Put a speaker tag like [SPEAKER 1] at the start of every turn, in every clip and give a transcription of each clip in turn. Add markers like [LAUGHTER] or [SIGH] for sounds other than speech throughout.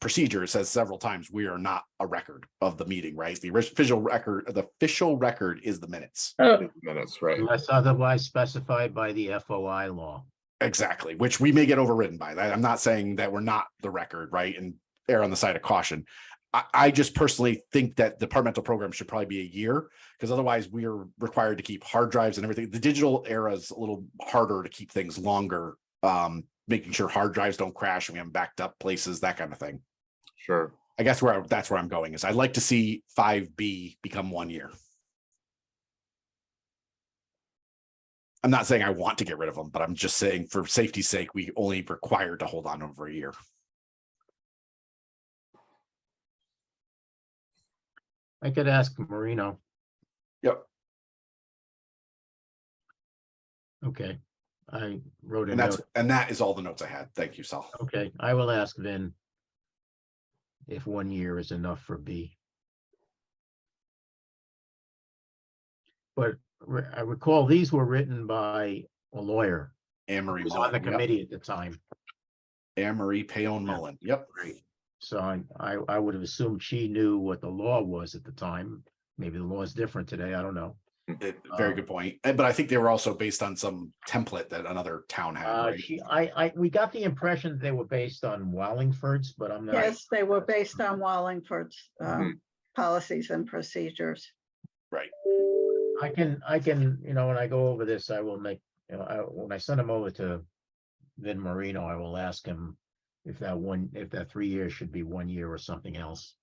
[SPEAKER 1] procedure, it says several times, we are not a record of the meeting, right? The official record, the official record is the minutes.
[SPEAKER 2] Oh, Minutes, right.
[SPEAKER 3] unless otherwise specified by the FOI law.
[SPEAKER 1] Exactly, which we may get overridden by that. I'm not saying that we're not the record, right? And err on the side of caution. I, I just personally think that departmental program should probably be a year because otherwise we are required to keep hard drives and everything. The digital era is a little harder to keep things longer, um, making sure hard drives don't crash and we haven't backed up places, that kind of thing.
[SPEAKER 2] Sure.
[SPEAKER 1] I guess where I- that's where I'm going is I'd like to see five B become one year. I'm not saying I want to get rid of them, but I'm just saying for safety's sake, we only require to hold on over a year.
[SPEAKER 3] I could ask Marino.
[SPEAKER 1] Yep.
[SPEAKER 3] Okay, I wrote a
[SPEAKER 1] And that's,
[SPEAKER 3] note.
[SPEAKER 1] and that is all the notes I had. Thank you, Sal.
[SPEAKER 3] Okay, I will ask Vin if one year is enough for B. But re- I recall these were written by a lawyer
[SPEAKER 1] Anne Marie.
[SPEAKER 3] who was on the
[SPEAKER 1] Mullen, yep.
[SPEAKER 3] committee at the time.
[SPEAKER 1] Anne Marie Payon
[SPEAKER 3] Yeah.
[SPEAKER 1] Mullen. Yep.
[SPEAKER 3] Right. So I, I, I would have assumed she knew what the law was at the time. Maybe the law is different today. I don't know.
[SPEAKER 1] Eh, Very
[SPEAKER 3] Um,
[SPEAKER 1] good point. And- But I think they were also based on some template that another town had.
[SPEAKER 3] Uh,
[SPEAKER 1] right?
[SPEAKER 3] she, I, I, we got the impression they were based on Wallingford's, but I'm not.
[SPEAKER 4] Yes, they were based on Wallingford's um, policies and procedures.
[SPEAKER 3] I can, I can, you know, when I go over this, I will make, you know, I, when I send them over to Vin Marino, I will ask him if that one, if that three years should be one year or something else.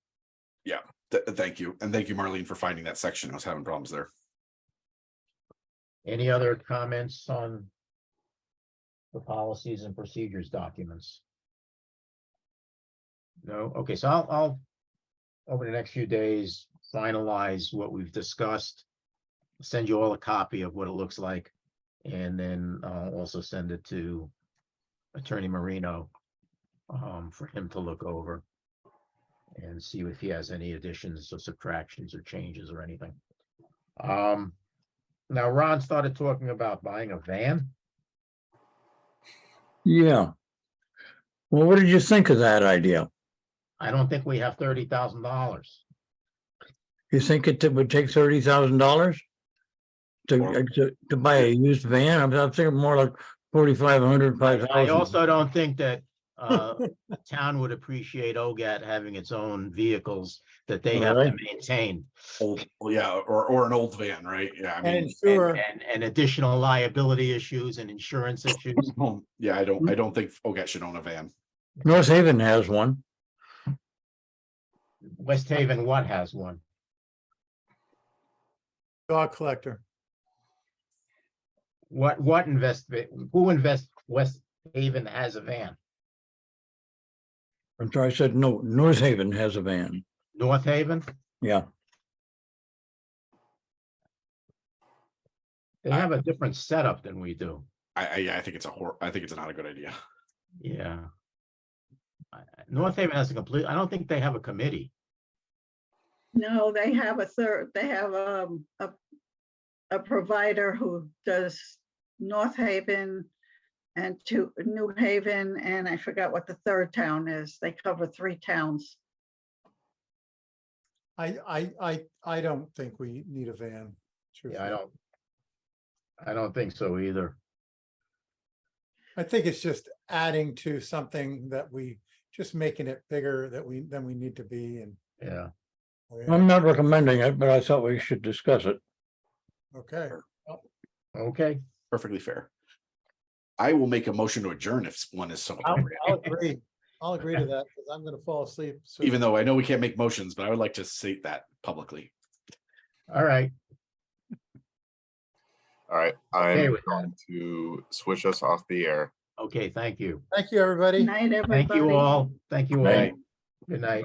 [SPEAKER 1] Th- Thank you. And thank you, Marlene, for finding that section. I was having problems there.
[SPEAKER 3] Any other comments on the policies and procedures documents? No, okay, so I'll, I'll, over the next few days, finalize what we've discussed. Send you all a copy of what it looks like, and then I'll also send it to Attorney Marino um, for him to look over and see if he has any additions or subtractions or changes or anything. Um, now Ron started talking about buying a van.
[SPEAKER 5] Yeah. Well, what did you think of that idea?
[SPEAKER 3] I don't think we have thirty thousand dollars.
[SPEAKER 5] You think it would take thirty thousand dollars?
[SPEAKER 2] Well-
[SPEAKER 5] To, uh, to, to buy a used van? I'm, I'm thinking more like forty-five hundred, five
[SPEAKER 3] I
[SPEAKER 5] thousand.
[SPEAKER 3] also don't think that uh [LAUGHS] the town would appreciate OGAT having its own vehicles that they have to
[SPEAKER 5] Alright.
[SPEAKER 3] maintain.
[SPEAKER 1] Old, yeah, or, or an old van, right? Yeah, I mean.
[SPEAKER 5] And
[SPEAKER 3] And
[SPEAKER 5] sure,
[SPEAKER 3] and- and additional liability issues and insurance issues.
[SPEAKER 1] Um, Yeah, I don't, I don't think oh, Ogat should own a van.
[SPEAKER 5] North Haven has one.
[SPEAKER 3] West Haven, what has one?
[SPEAKER 6] Dog collector.
[SPEAKER 3] What what invest, who invest, West Haven has a van?
[SPEAKER 5] I'm sorry, I said no, North Haven has a van.
[SPEAKER 3] North Haven?
[SPEAKER 5] Yeah,
[SPEAKER 3] They have a different setup than we do.
[SPEAKER 1] I, I, yeah, I think it's a hor, I think it's not a good idea. [LAUGHS]
[SPEAKER 3] Yeah. I- I- North Haven has a complete, I don't think they have a committee.
[SPEAKER 4] No, they have a third, they have um, a, a provider who does North Haven and to New Haven, and I forgot what the third town is. They cover three towns.
[SPEAKER 6] I, I, I, I don't think we need a van.
[SPEAKER 3] Yeah, I
[SPEAKER 6] truthfully.
[SPEAKER 3] don't. I don't think so either.
[SPEAKER 6] I think it's just adding to something that we, just making it bigger that we, than we need to be and. oh,
[SPEAKER 3] Yeah.
[SPEAKER 5] I'm not recommending it, but I thought we should discuss it.
[SPEAKER 6] Okay,
[SPEAKER 3] Okay.
[SPEAKER 1] Perfectly fair. I will make a motion to adjourn if one is so
[SPEAKER 6] I'll,
[SPEAKER 1] appropriate,
[SPEAKER 6] I'll agree. I'll agree to that because I'm gonna fall asleep. soon.
[SPEAKER 1] even though I know we can't make motions, but I would like to state that publicly.
[SPEAKER 3] All right.
[SPEAKER 2] All right.
[SPEAKER 3] Okay
[SPEAKER 2] I'm
[SPEAKER 3] with that.
[SPEAKER 2] going to switch us off the air.
[SPEAKER 3] Okay. Thank you.
[SPEAKER 6] Thank you, everybody.
[SPEAKER 4] Night, everybody.
[SPEAKER 3] Thank you all. Thank you all.
[SPEAKER 5] Night.
[SPEAKER 3] Good night.